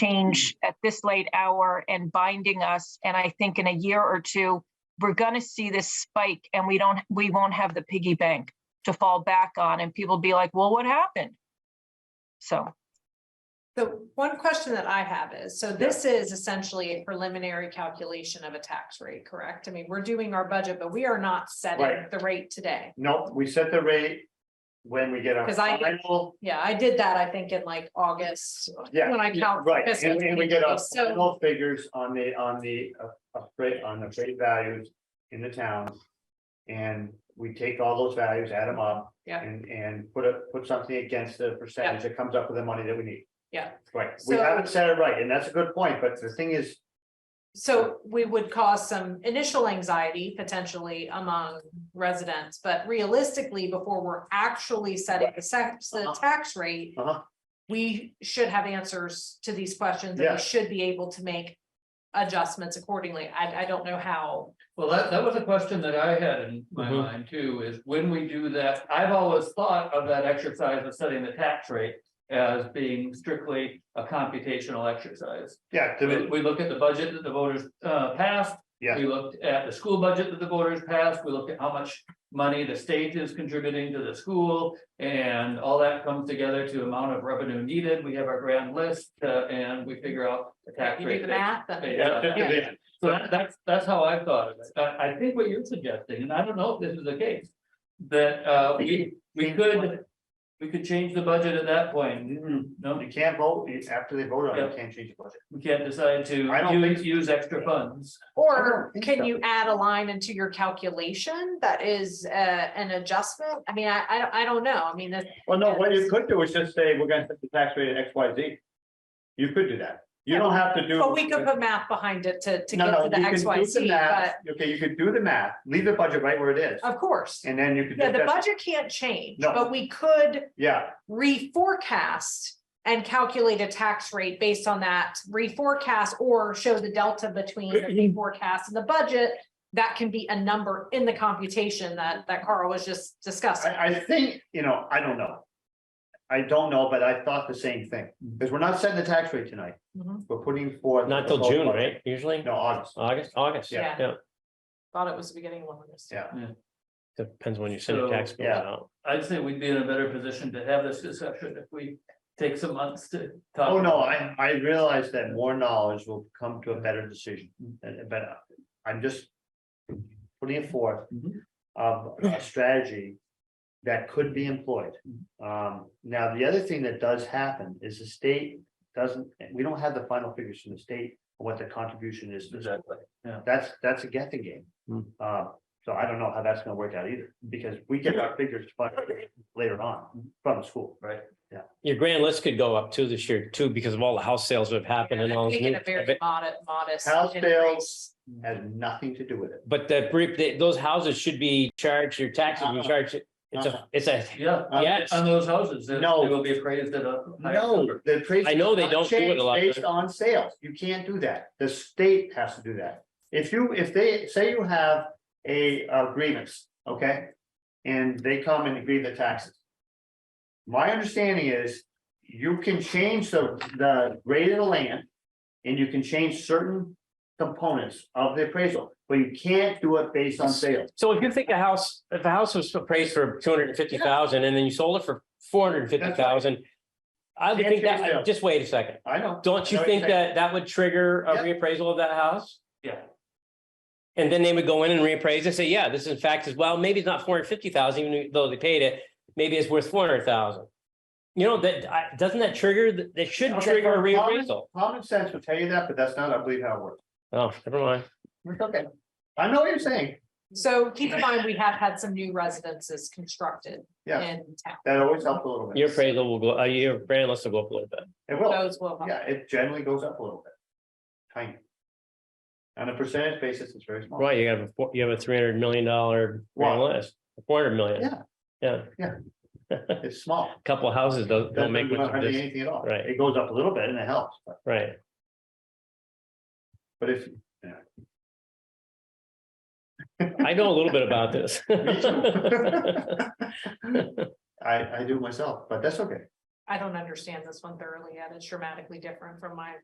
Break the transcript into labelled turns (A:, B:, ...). A: change at this late hour and binding us. And I think in a year or two, we're going to see this spike and we don't, we won't have the piggy bank to fall back on. And people be like, well, what happened? So.
B: The one question that I have is, so this is essentially a preliminary calculation of a tax rate, correct? I mean, we're doing our budget, but we are not setting
C: Right.
B: the rate today.
C: No, we set the rate when we get our
B: 'Cause I-
C: final,
B: Yeah, I did that, I think, in like August.
C: yeah,
B: When I count.
C: right,
B: fiscal
C: and, and we get our
B: So,
C: final figures on the, on the, uh, appraise- on the freight values in the towns. And we take all those values, add them up.
B: Yeah.
C: And, and put a, put something against the percentage that comes up with the money that we need.
B: Yeah.
C: Right, we
B: So-
C: haven't set it right, and that's a good point, but the thing is,
B: so we would cause some initial anxiety potentially among residents, but realistically, before we're actually setting the sex, the
C: Uh-huh.
B: tax rate.
C: Uh-huh.
B: We should have answers to these questions, and
C: Yeah.
B: we should be able to make adjustments accordingly. I, I don't know how.
D: Well, that, that was a question that I had in my
E: Mhm.
D: mind too, is when we do that, I've always thought of that exercise of setting the tax rate. As being strictly a computational exercise.
C: yeah,
D: We,
C: the-
D: we look at the budget that the voters, uh, passed.
C: Yeah.
D: We looked at the school budget that the voters passed. We looked at how much money the state is contributing to the school. And all that comes together to amount of revenue needed. We have our grand list, uh, and we figure out the tax
B: You do
D: rate.
B: the
D: that-
B: math, then.
D: Yeah. So that, that's, that's how I thought of it. I, I think what you're suggesting, and I don't know if this is the case, that, uh, we, we could, we could change the budget at that point.
C: Mm,
D: No,
C: you can't vote, you- after they vote on it, you
D: Yeah.
C: can't change the budget.
D: we can't decide to
C: I don't
D: use, use extra funds.
B: Or
C: think so.
B: can you add a line into your calculation that is, uh, an adjustment? I mean, I, I, don't- I don't know. I mean, that,
C: Well, no, what you could do is just say, we're gonna set the tax rate at X, Y, Z. You could do that. You don't have to do.
B: but we could put math behind it to, to
C: No,
B: get
C: no,
B: to the
C: you can
B: X,
C: do
B: Y,
C: the
B: Z,
C: math.
B: but
C: Okay, you could do the math, leave the budget right where it is,
B: of course.
C: and then you could.
B: Yeah,
C: just-
B: the budget can't change,
C: No.
B: but we could
C: Yeah,
B: reforecast and calculate a tax rate based on that reforecast or show the delta between the forecast and the budget. That can be a number in the computation that, that Carl was just discussing.
C: I, I think, you know, I don't know. I don't know, but I thought the same thing, because we're not setting the tax rate tonight.
B: Mhm.
C: We're putting forth.
E: Not
C: the
E: till June,
C: proposed
E: right? Oh. Usually?
C: budget. No, August.
E: August, August.
B: Yeah.
E: Yeah,
B: Thought it was the beginning of August.
C: Yeah.
E: depends when you send your tax
D: So,
E: bills
C: yeah.
E: out.
D: I'd say we'd be in a better position to have this discussion if we take some months to talk.
C: Oh, no, I, I realize that more knowledge will come to a better decision, and, but I'm just. Putting it forth
D: Mhm.
C: of a strategy that could be employed.
D: Mm-hmm.
C: Um, now, the other thing that does happen is the state doesn't, we don't have the final figures from the state. on What the contribution is. to the school.
D: Exactly, yeah.
C: That's, that's a guessing game.
E: Hmm.
C: Uh, so I don't know how that's gonna work out either,
D: Hmm.
C: because we get our figures later on from the school.
D: Right.
E: Your grand list could go up too this year too because of all the house sales that have happened and all. this
B: Making
E: new-
B: a very modest, modest.
C: House sales.
B: increase.
C: Has nothing to do with it.
E: But the brief, they- those houses should be charged, your taxes, you
B: Uh-huh.
C: Uh-uh.
E: charge it. It's a,
C: Uh-uh.
E: it's a,
D: Yeah.
C: Uh,
E: yes.
D: On those houses, they they
C: No.
D: will be appraised at a higher number.
C: No, the appraisal.
E: I know they
C: is not
E: don't do it a
C: changed
E: lot,
C: Based
E: but-
C: on sales, you can't do that, the state has to do that. If you, if they, say you have a uh, grievance, okay? And they come and agree the taxes. My understanding is, you can change the, the grade of the land. And you can change certain components of the appraisal, but you can't do it based on sales.
E: So if you think a house, if a house was appraised for two hundred and fifty thousand and then you sold it for four hundred and fifty thousand. I would
C: Can't
E: think
C: change
E: that,
C: sales.
E: just wait a second.
C: I know.
E: Don't you
C: No,
E: think
C: exactly.
E: that that would trigger a
C: Yeah.
E: reappraisal of that house?
D: Yeah.
E: And then they would go in and reappraise and say, yeah, this in fact is, well, maybe it's not four hundred fifty thousand, even though they paid it, maybe it's worth four hundred thousand. You know, that, I- doesn't that trigger, th- that should
C: Okay,
E: trigger a
C: for common-
E: reappraisal?
C: Common sense will tell you that, but that's not, I believe, how it works.
E: Oh, never mind.
C: It's okay. I know what you're saying,
B: So keep in mind, we have had some new residences constructed
C: Yeah.
B: in town.
C: that always helps a little bit.
E: Your appraisal will go, uh, your brand list will go up a little bit.
C: It will,
B: Those will. help.
C: yeah, it generally goes up a little bit. Tiny. On a percentage basis, it's very small.
E: Right, you have, a four- you have a three hundred million dollar grand
C: Wow.
E: list, four hundred million.
C: Yeah.
E: Yeah.
C: It's small.
E: Couple of houses don't, don't
C: Doesn't
E: make
C: do
E: much of
C: hardly
E: this,
C: anything at all.
E: Right.
C: It goes up a little bit and it helps, but,
E: right?
C: but if.
E: I know a little bit about this.
C: Me too. I, I do myself, but that's okay.
B: I don't understand this one thoroughly yet. It's dramatically different from my